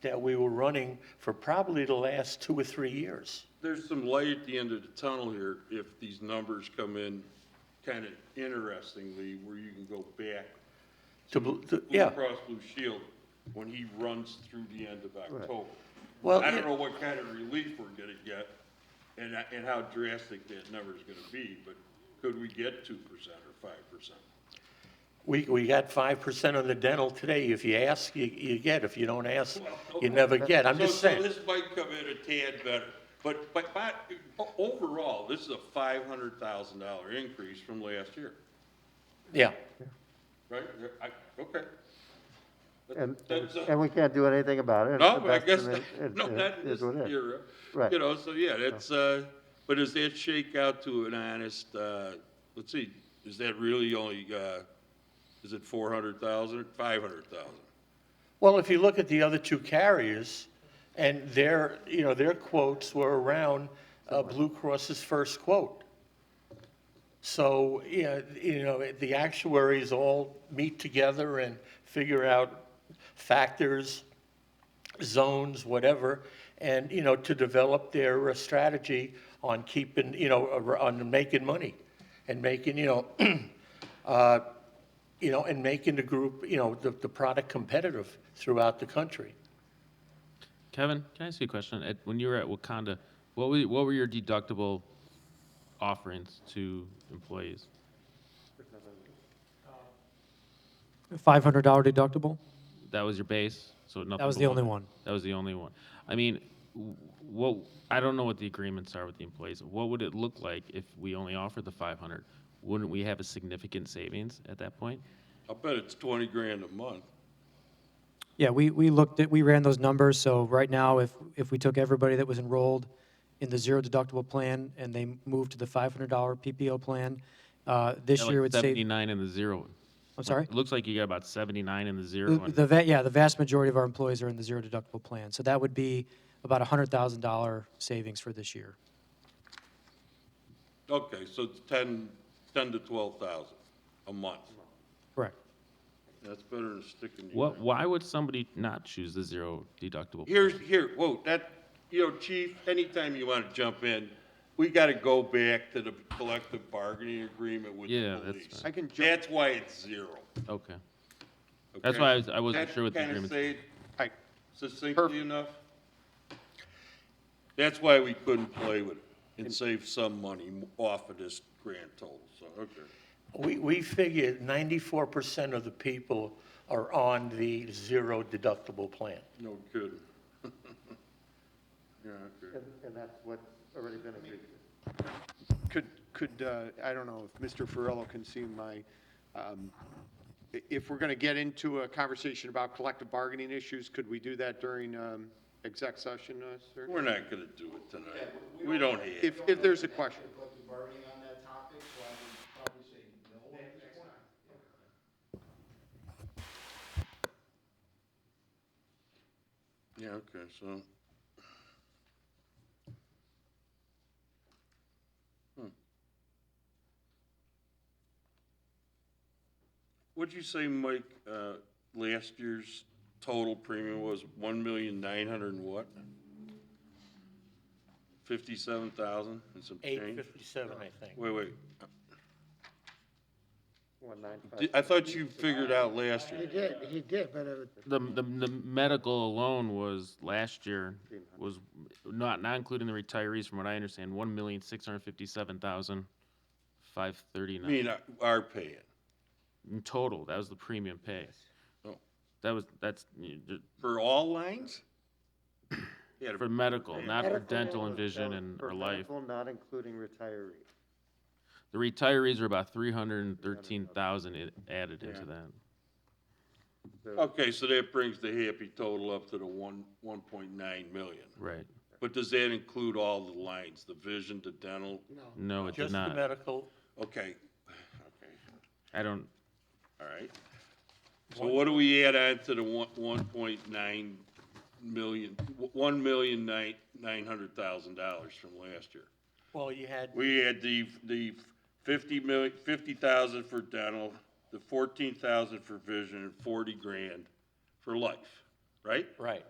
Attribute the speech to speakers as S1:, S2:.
S1: that we were running for probably the last two or three years.
S2: There's some light at the end of the tunnel here if these numbers come in kind of interestingly, where you can go back.
S1: To, bl- to-
S2: Blue
S1: yeah,
S2: Cross Blue Shield, when he runs through the end of October.
S1: Well,
S2: I don't
S1: yeah.
S2: know what kind of relief we're gonna get and, and how drastic that number's gonna be, but could we get two percent or five percent?
S1: we, we got five percent on the dental today. If you ask, you, you get. If you don't ask,
S2: Well,
S1: you never get. I'm
S2: So-
S1: just saying.
S2: So this might come in a tad better, but, but, but o- overall, this is a five hundred thousand dollar increase from last year,
S1: Yeah,
S2: right? I, okay. That-
S3: And,
S2: that's a-
S3: and we can't do anything about it.
S2: No,
S3: It's
S2: but I
S3: the
S2: guess,
S3: best of it.
S2: no,
S3: It-
S2: not
S3: it
S2: in this
S3: is what it is.
S2: era.
S3: Right.
S2: You know, so yeah, that's, uh, but does that shake out to an honest, uh, let's see, is that really only, uh, is it four hundred thousand, five hundred thousand?
S1: well, if you look at the other two carriers, and their, you know, their quotes were around uh, Blue Cross's first quote. So, yeah, you know, the actuaries all meet together and figure out factors, zones, whatever, and, you know, to develop their uh, strategy on keeping, you know, ar- on making money and making, you know, uh, you know, and making the group, you know, the, the product competitive throughout the country.
S4: Kevin, can I ask you a question? At, when you were at Wakanda, what were, what were your deductible offerings to employees?
S5: Five hundred dollar deductible.
S4: That was your base, so nothing.
S5: That was the
S4: below
S5: only
S4: that.
S5: one.
S4: That was the only one. I mean, w- what I don't know what the agreements are with the employees. What would it look like if we only offered the 500? Wouldn't we have a significant savings at that point?
S2: I bet it's twenty grand a month.
S5: Yeah, we, we looked at, we ran those numbers, so right now, if, if we took everybody that was enrolled in the zero deductible plan and they moved to the five hundred dollar PPO plan, uh, this
S4: Got
S5: year
S4: like
S5: would save,
S4: 79 in the zero.
S5: I'm sorry?
S4: It looks like you got about 79 in the zero.
S5: The,
S4: and-
S5: the va- yeah, the vast majority of our employees are in the zero deductible plan, so that would be about a hundred thousand dollar savings for this year.
S2: Okay, so it's ten, ten to twelve thousand a month.
S5: Correct.
S2: That's better than sticking. to your-
S4: what? Why would somebody not choose the zero deductible?
S2: Here's, here, whoa, that, you know, chief, anytime you want to jump in, we got to go back to the collective bargaining agreement with
S4: Yeah,
S2: the
S4: that's
S2: police.
S4: fine. I
S3: can jump-
S2: That's why it's zero.
S4: Okay. That's
S2: okay?
S4: why I was- I wasn't
S2: That
S4: sure what the
S2: kinda
S4: agreement-
S2: say it
S3: Right.
S2: Succinctly enough? That's why we couldn't play with it and save some money off of this grand total, so, okay.
S1: We, we figure ninety-four percent of the people are on the zero deductible plan.
S2: No kidding. Yeah, okay.
S3: And, and that's what's already been agreed to.
S6: Could, could, uh, I don't know if Mr. Ferrello can see my, um, i- if we're going to get into a conversation about collective bargaining issues, could we do that during um, exec session, uh, sir?
S2: We're not going to do it tonight. We don't have. it.
S6: If, if there's a question.
S7: collective bargaining on that topic, so I would probably say no at this point.
S2: Yeah, okay, so. Hmm. What'd you say, Mike, uh, last year's total premium was one million nine hundred and what? Fifty-seven thousand and some
S1: Eight
S2: change?
S1: fifty-seven, I think.
S2: Wait, wait,
S3: One nine five.
S2: Di- I thought you figured out last year.
S8: did, he did, but it was
S4: The, the, the medical alone was, last year, was not, not including the retirees, from what I understand, one million, six hundred fifty-seven thousand, five
S2: I
S4: thirty-nine.
S2: mean, uh, our paying.
S4: In total, that was the premium pay.
S2: Oh.
S4: That was, that's, you- you-
S2: For all lines? Yeah,
S4: for medical, not for dental and vision and, or
S3: For
S4: life.
S3: medical, Not including retiree.
S4: The retirees are about three hundred and thirteen thousand added into that.
S2: Okay, so that brings the happy total up to the one, one point nine million.
S4: Right.
S2: But does that include all the lines, the vision, the dental?
S4: No, it did
S1: Just the
S4: not.
S1: medical,
S2: Okay, okay,
S4: I don't,
S2: all right. So what do we add on to the one, one point nine million, one million nine, nine hundred thousand dollars from last year?
S1: well, you had,
S2: We had the, the fifty million, fifty thousand for dental, the fourteen thousand for vision, and forty grand for life, right?
S1: right,